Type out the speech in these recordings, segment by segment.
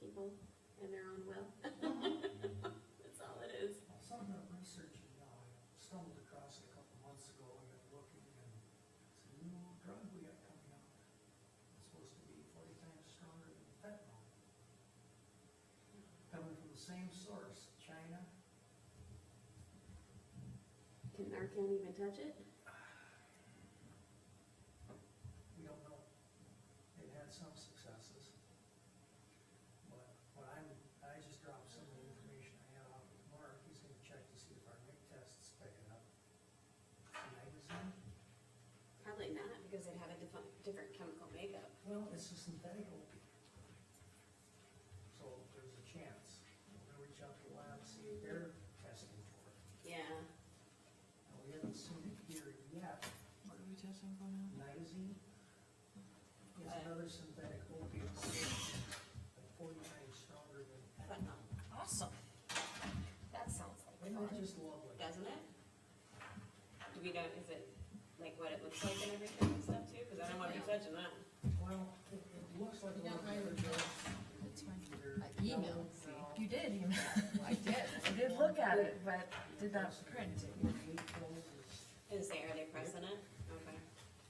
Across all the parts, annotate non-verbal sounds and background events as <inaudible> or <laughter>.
people and their own will. That's all it is. Some of that research, you know, I stumbled across it a couple months ago, I got looking, and it's a new drug we got coming out. It's supposed to be forty times stronger than fentanyl. Coming from the same source, China, Can, our county even touch it? we don't know. They've had some successes. But when I'm, I just dropped some of the information I had off with Mark, he's gonna check to see if our MIG tests pick it up. Magazine? Probably not, because they'd have a different, different chemical makeup. Well, it's a synthetic opiate. So there's a chance. We're gonna reach out to the lab, see if they're testing for it. Yeah, Now, we haven't seen it here yet. What are we testing for now? Nitazene is Right. another synthetic opiate, like forty times stronger than, but no, Awesome. That sounds isn't that just lovely? doesn't it? Do we know, is it like what it looks like and everything and stuff too? Cause I don't wanna be touching that. Well, it, it looks like You one got of my the other address. drugs. Either I yellow emailed, see. now, You did email. <laughs> I did. I did look at it, but did not print it. eight pills is Is there, are they pressing it? Okay.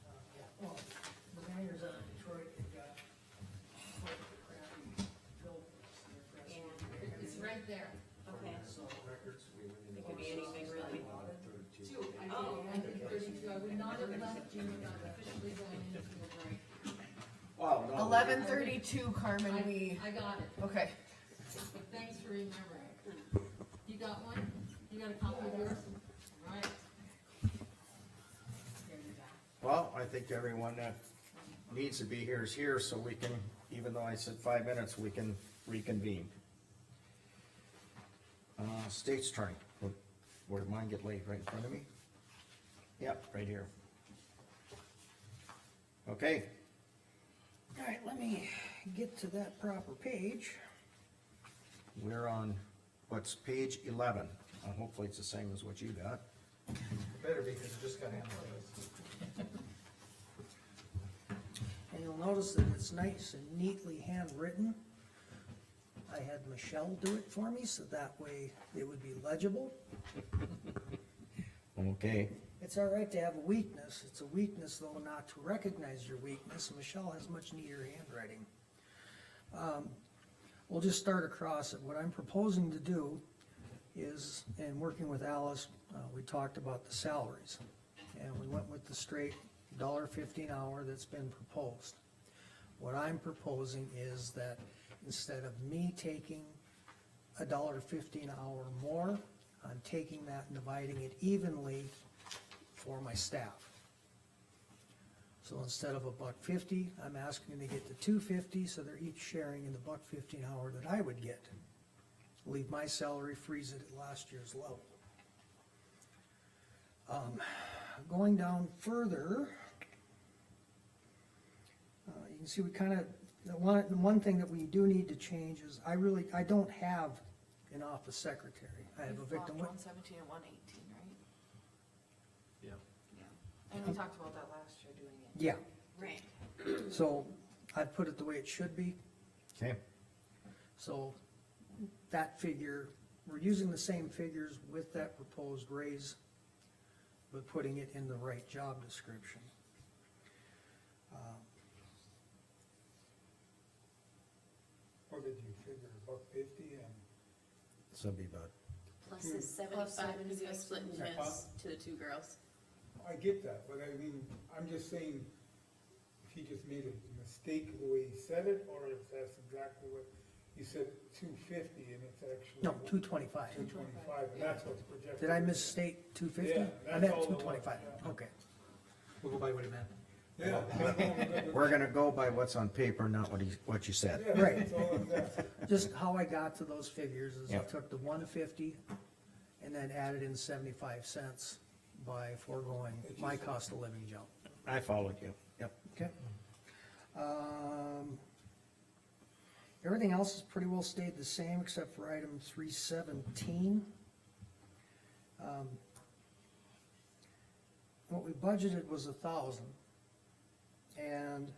Uh, yeah, well, the mayor's out of Detroit, they got quite the crappy filters, they're fresh. Yeah. It's right there. Okay. So, Records, we went in. It could be anything, really. Two, I think, Oh. I think thirty-two, I would not have left you without officially going into a break. Wow, no. Eleven thirty-two, Carmen, I- we, I got it, okay. but thanks for remembering. You got one? You got a copy of yours? All right. There you go. Well, I think everyone that needs to be here is here, so we can, even though I said five minutes, we can reconvene. Uh, state's attorney, Where- where did mine get laid, right in front of me? Yep, right here. Okay, all right, let me get to that proper page. we're on, what's page eleven, and hopefully it's the same as what you got. Better because it just got analyzed. And you'll notice that it's nice and neatly handwritten. I had Michelle do it for me, so that way it would be legible. Okay, It's all right to have a weakness, it's a weakness though not to recognize your weakness, Michelle has much neater handwriting. Um, We'll just start across it, what I'm proposing to do is, and working with Alice, uh, we talked about the salaries. And we went with the straight dollar fifty an hour that's been proposed. What I'm proposing is that instead of me taking a dollar fifty an hour more, I'm taking that and dividing it evenly for my staff. So instead of a buck fifty, I'm asking them to get to two fifty, so they're each sharing in the buck fifty an hour that I would get. Leave my salary, freeze it at last year's level. Um, going down further, uh, you can see we kind of, the one, the one thing that we do need to change is, I really, I don't have an office secretary. I have a victim wit- One seventeen and one eighteen, right? Yeah. Yeah. And we talked about that last year doing it. yeah, Right. so I put it the way it should be. okay. So that figure, we're using the same figures with that proposed raise, but putting it in the right job description. Uh, What did you figure, a buck fifty and? So it'd be about Plus is seventy-five, cause he was splitting Yeah. shifts to the two girls. I get that, but I mean, I'm just saying, if he just made a mistake the way he said it, or if that's exactly what, he said two fifty and it's actually. No, two twenty-five. Two twenty-five, and that's what's projected. Did I misstate two fifty? Yeah, I that's meant all it two was, twenty-five, yeah. okay. We'll go by what it meant. Yeah. that's all I'm good with. We're gonna go by what's on paper, not what he, what you said. Yeah, Right. that's all I'm asking. Just how I got to those figures is I Yeah. took the one fifty and then added in seventy-five cents by foregoing my cost of living jump. I followed you. Yep. Okay. Um, everything else has pretty well stayed the same except for item three seventeen. Um, What we budgeted was a thousand. And